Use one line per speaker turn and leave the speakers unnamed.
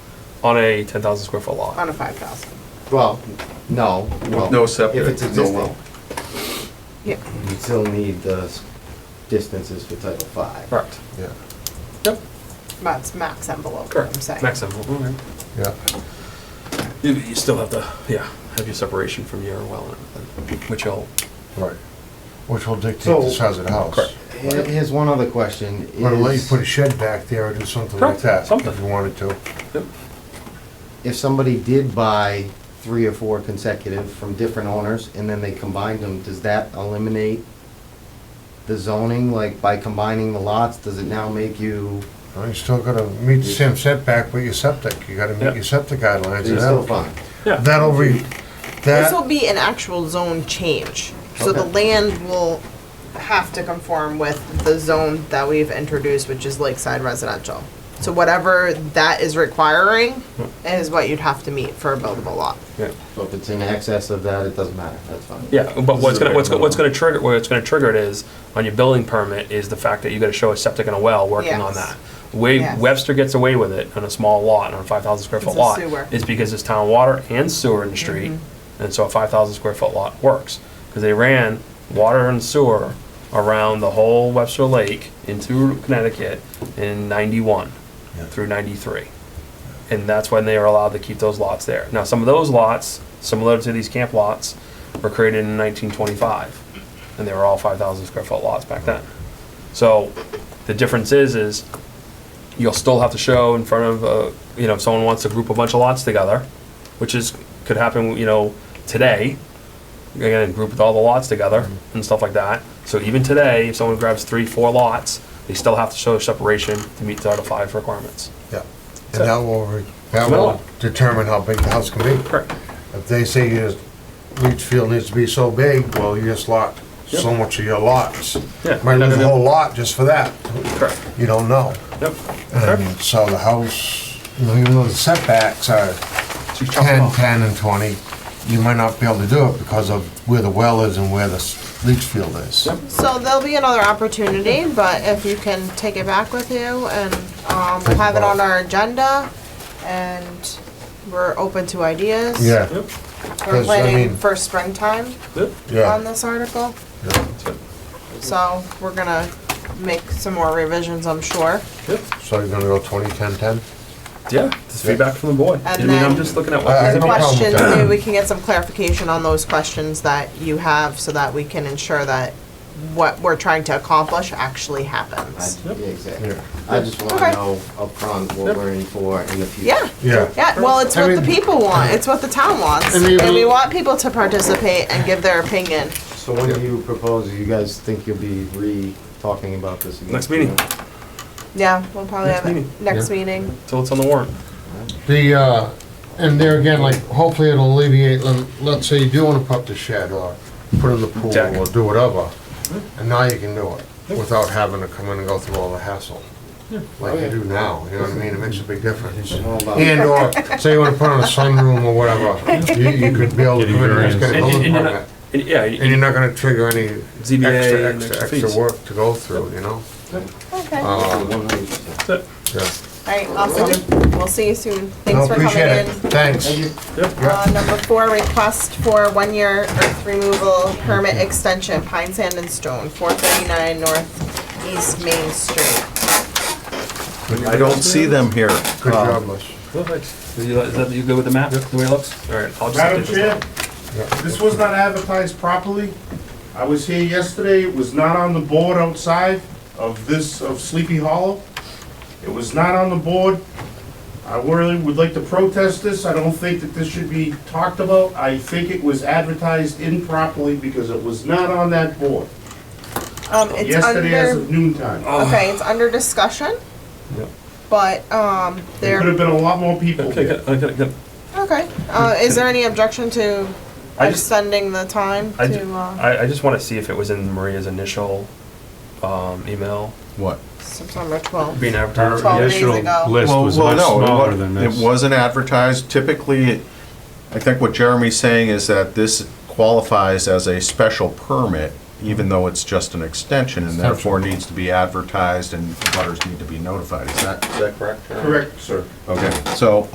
on a ten thousand square foot lot.
on a five thousand.
Well, no, well.
no septic,
If it's
no
existing,
well.
Yeah.
you still need the s- distances for Title Five.
Correct.
Yeah,
Yep.
But it's max envelope, what
Correct.
I'm saying.
Max envelope. Okay.
yeah.
You, you still have the yeah have your separation from your well and everything, which will
Right. Which will dictate
So-
the size of the house.
Correct.
Here- Here's one other question.
Or let you
is-
put a shed back there or do something like
Correct,
that,
something.
if you wanted to.
yep.
If somebody did buy three or four consecutive from different owners and then they combined them, does that eliminate the zoning? Like by combining the lots, does it now make you,
Well, You still gotta meet the same setback with your septic, you gotta
Yep.
meet your septic guidelines.
you're
and
still
that'll-
fine?
Yeah.
That'll be,
This will
that,
be an actual zone change, so the
Okay.
land will have to conform with the zone that we've introduced, which is lakeside residential. So whatever that is requiring
Hmm.
is what you'd have to meet for a buildable lot.
Yeah.
So if it's in excess of that, it doesn't matter, that's fine.
Yeah, but
This
what's
is
gonna,
a
what's, go- what's
minimum.
gonna trigger, what's gonna trigger it is, on your building permit, is the fact that you gotta show a septic and a well, working on
Yes.
that. Way
Yes.
Webster gets away with it on a small lot, on a five thousand square
It's
foot
a
lot,
sewer.
is because it's town water and sewer in the street, and so a five thousand square foot lot works. Cause they ran water and sewer around the whole Webster Lake into Connecticut in ninety-one
Yeah.
through ninety-three. And that's when they were allowed to keep those lots there. Now, some of those lots, similar to these camp lots, were created in 1925, and they were all 5,000 square foot lots back then. So the difference is, is you'll still have to show in front of, uh, you know, if someone wants to group a bunch of lots together, which is, could happen, you know, today, again, group all the lots together
Mm-hmm.
and stuff like that. So even today, if someone grabs three, four lots, they still have to show separation to meet the Title Five requirements.
yeah. And that will, re- that will determine how big the house can be.
Correct.
If they say your leach field needs to be so big, well, you just lot so
Yep.
much of your lots.
Yeah.
Might lose a whole lot just for that,
Correct.
you don't know.
Yep.
Um, And so the house, you know, even though the setbacks are
So you chop it
10,
off.
10 and 20, you might not be able to do it because of where the well is and where the s- leach field is.
Yep.
So there'll be another opportunity, but if you can take it back with you and, um, we'll
Think
have it on
about it.
our agenda and we're open to ideas.
Yeah,
Yep.
We're
'cause, I
planning
mean-
for springtime
Yep.
on
yeah.
this article.
That's it.
So we're gonna make some more revisions, I'm sure.
Yep.
So you're gonna go 20, 10, 10?
Yeah, this feedback from the board. I
And
mean, I'm
then-
just looking at
Uh, I-
what.
I don't- problem with
Questions,
that.
maybe we can get some clarification on those questions that you have so that we can ensure that what we're trying to accomplish actually
I-
happens.
Yeah, exactly.
Yeah.
I just
Okay.
wanna know upfront what
Yep.
we're in for in the future.
Yeah,
Yeah.
yeah, well, it's what the
I mean-
people want, it's what the town wants,
I mean,
and we
we-
want people to participate and give their opinion.
So when do you propose, you guys think you'll be re-talking about this again?
Next meeting.
Yeah, we'll probably
Next
have
meeting.
it next
Yeah.
meeting.
Till it's on the warrant.
The, uh, and there again, like, hopefully it'll alleviate, let- let's say you do wanna put up the shed or put in the pool
Deck.
or do whatever, and now you can do it without having to come in and go through all the hassle. Like you do now, you know what I mean? It makes a big difference.
All about-
And or, say you wanna put on a sunroom or whatever, you, you could be able to
Getting
come in and just get a
variance.
building
And- and-
permit.
And, yeah,
And
and
you're not gonna trigger any
ZBA
extra,
and
extra,
extra fees.
extra work to go through, you know?
Okay.
Uh,
One hundred percent.
that's it.
yeah.
Alright, awesome, we'll see you soon,
No,
thanks for coming
appreciate it.
in.
Thanks.
Uh, number four, request for one-year earth removal permit extension, Pine Sand and Stone, four thirty-nine North East Main Street.
I don't see them here.
Good job, Les.
Perfect. Is you- is that you good with the map, the way it looks? All right, I'll just.
Madam
update this
Chair,
now.
this was not advertised properly. I was here yesterday, it was not on the board outside of this, of Sleepy Hollow. It was not on the board. I really would like to protest this, I don't think that this should be talked about. I think it was advertised improperly because it was not on that board
Um, it's
yesterday as
under,
of noon time.
okay, it's under discussion.
Oh. Yep.
But, um,
There
there,
could have been a lot more people
Okay,
there.
good, okay, good.
okay, uh, is there any objection to
I just,
extending the time
I ju-
to, uh,
I, I just wanna see if it was in Maria's initial, um, email
What?
September twelfth?
being advertised.
Twelve
Yeah.
days ago.
list
Well,
was
well,
much
no, it
smaller
wa-
than this.
It wasn't advertised. Typically, I think what Jeremy's saying is that this qualifies as a special permit, even though it's just an extension, and therefore needs to be advertised and butters need to be notified. Is that, is that correct?
Correct, sir.
Okay, so